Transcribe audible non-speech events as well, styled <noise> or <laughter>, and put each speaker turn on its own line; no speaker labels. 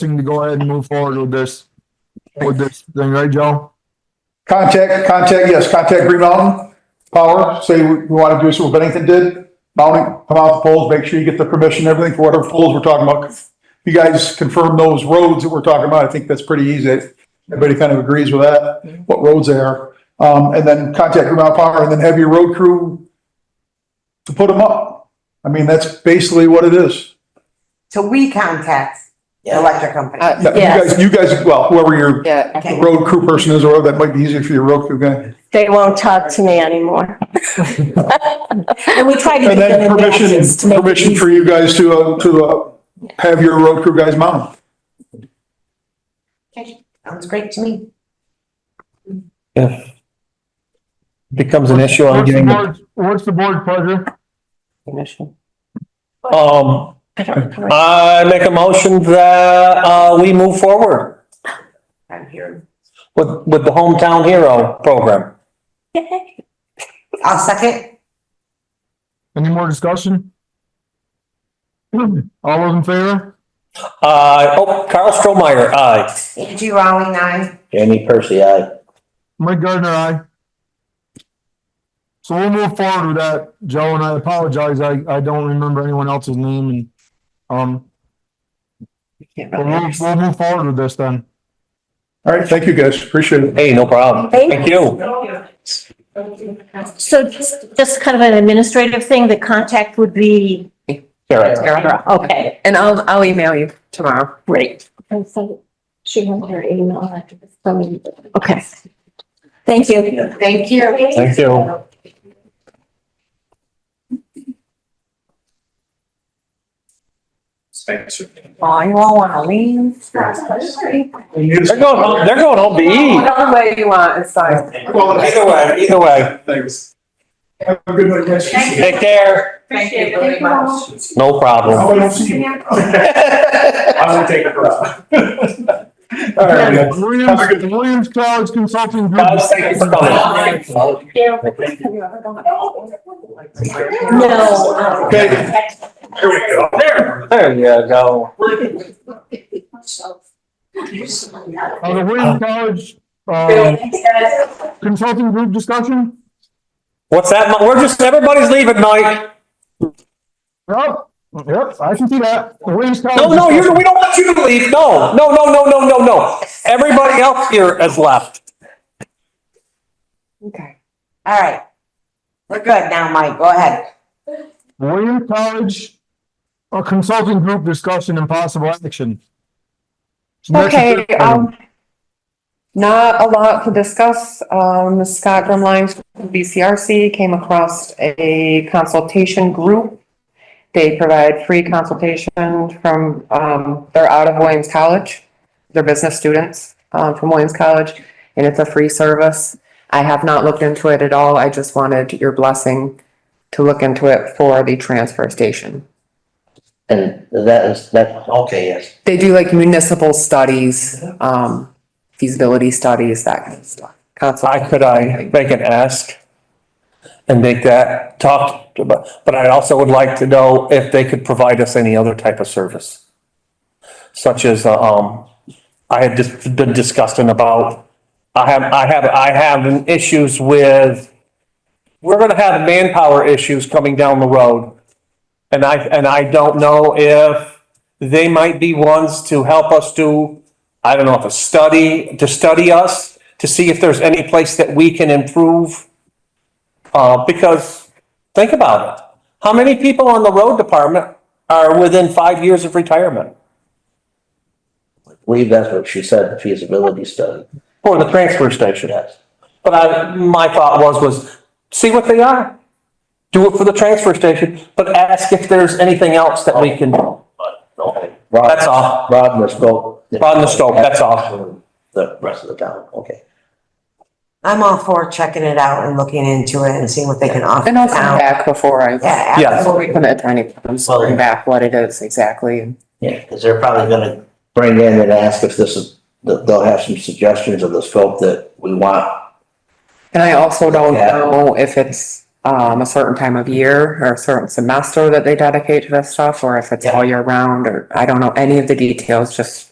thing to go ahead and move forward with this, with this thing, right, Joe?
Contact, contact, yes, contact Green Mountain Power, say we want to do so what Bennington did. Mounting, come out the poles, make sure you get the permission, and everything for whatever poles we're talking about. If You guys confirm those roads that we're talking about. I think that's pretty easy. Everybody kind of agrees with that, what roads they are. Um, and then contact Green Mountain Power and then have your road crew to put them up. I mean, that's basically what it is.
So we contact the electric company.
Uh,
Yeah, You
Yes,
guys, you guys, well, whoever your
yeah.
Okay.
road crew person is, or that might be easier for your road crew guy.
They won't talk to me anymore.
And we try to give
And
them
then permission,
advances to make it
permission
easy.
for you guys to, uh, to, uh, have your road crew guys mount.
Sounds great to me.
if becomes an issue on
What's the
getting, the-
board's- What's the board pleasure?
um,
I don't know.
I make a motion that, uh, we move forward
I'm here.
with, with the Hometown Hero program.
I'll second.
Any more discussion? <clears throat> All those in favor?
Uh, oh, Carl Strohmeyer, aye.
Angie Rowling, aye.
Jamie Percy, aye.
Mike Gardner, aye. So we'll move forward with that, Joe, and I apologize, I, I don't remember anyone else's name and, um,
can't
but we'll, we'll move forward with this then.
All right, thank you guys, appreciate it.
Hey, no problem.
Thank
Thank you.
So just, just kind of an administrative thing, the contact would be,
Sarah.
okay,
And I'll, I'll email you tomorrow.
great. And so she has her email after this, so. Okay. Thank you.
Thank you.
Thank you.
Oh, you all wanna leave?
They're going, home- they're going home to eat.
Whatever way you want, it's fine.
Either way, either way.
Thanks. Have a good one, guys.
Take care.
Thank you very much.
No <laughs> problem.
I don't see you. <laughs>
I'm gonna take it for us.
All right, guys.
Williams, Williams Clouds Consulting Group.
Guys, thank you for coming.
No. um,
Okay.
Here we go. There.
There you go.
Uh, the Williams College, uh, Consulting Group discussion?
What's that? Mike? We're just, everybody's leaving, Mike.
Yep, yep, I can see that. The Williams College.
No, no,
discussion.
you're, we don't want you to leave. No, no, no, no, no, no, no. Everybody else here has left.
Okay, all right. We're good now, Mike, go ahead.
William College, a consulting group discussion and possible action. Next
Okay,
agenda item.
um, not a lot to discuss. Um, Scott Grumline from BCRC came across a consultation group. They provide free consultation from, um, they're out of Williams College. They're business students, um, from Williams College, and it's a free service. I have not looked into it at all. I just wanted your blessing to look into it for the transfer station.
And that is, that, okay, yes.
They do like municipal studies, um, feasibility studies, that kind of stuff.
I,
Consultation.
could I make an ask? And make that talk, but, but I also would like to know if they could provide us any other type of service. Such as, um, I had just been discussing about, I have, I have, I have issues with, we're gonna have manpower issues coming down the road. And I, and I don't know if they might be ones to help us do, I don't know if a study, to study us, to see if there's any place that we can improve. Uh, because, think about it, how many people on the road department are within five years of retirement?
I believe that's what she said, the feasibility study,
For the transfer station.
yes.
But I, my thought was, was see what they are. Do it for the transfer station, but ask if there's anything else that we can do.
Okay.
That's all.
Rod and the scope.
Rod and the scope, that's all.
The rest of the town, okay.
I'm all for checking it out and looking into it and seeing what they can offer.
And I'll come
now.
back before I,
Yeah.
Yes.
before we commit to anything, I'm just bring back what it is exactly. and-
Yeah, because they're probably gonna bring in and ask if this is, that they'll have some suggestions of the scope that we want.
And I also don't
Yeah.
know if it's, um, a certain time of year or a certain semester that they dedicate to this stuff, or if it's all year round, or I don't know any of the details, just